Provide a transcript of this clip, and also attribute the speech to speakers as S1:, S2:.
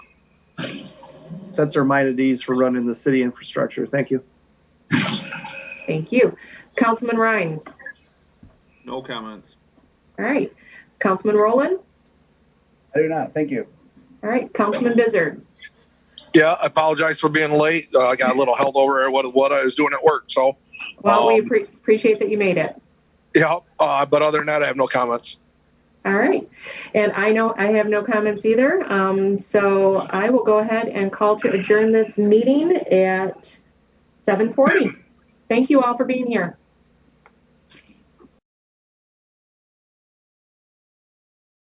S1: sets our mind at ease for running the city infrastructure. Thank you.
S2: Thank you. Councilman Rhines.
S3: No comments.
S2: All right. Councilman Rowland.
S4: I do not. Thank you.
S2: All right. Councilman Bizzard.
S5: Yeah, I apologize for being late. Uh, I got a little held over at what, what I was doing at work. So,
S2: Well, we
S5: Um,
S2: appre- appreciate that you made it.
S5: yeah, uh, but other than that, I have no comments.
S2: All right. And I know I have no comments either. Um, so I will go ahead and call to adjourn this meeting at 7:40. Thank you all for being here.